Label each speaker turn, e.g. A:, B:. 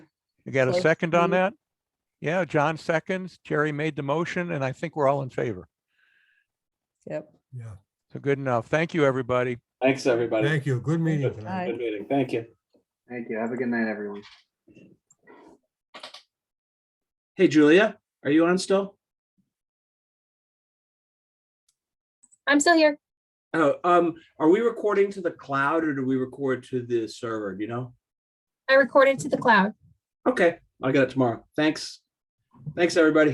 A: You got a
B: Close
A: second on
B: to-
A: that? Yeah, John seconds. Jerry made the motion and I think we're all in favor.
B: Yep.
C: Yeah,
A: So good enough. Thank you, everybody.
D: Thanks, everybody.
C: thank you. Good meeting
D: Good
C: tonight.
D: good meeting. Thank you.
E: Thank you. Have a good night, everyone.
D: Hey, Julia, are you on still?
F: I'm still here.
D: Oh, um, are we recording to the cloud or do we record to the server? Do you know?
F: I recorded to the cloud.
D: Okay, I got it tomorrow. Thanks. Thanks, everybody.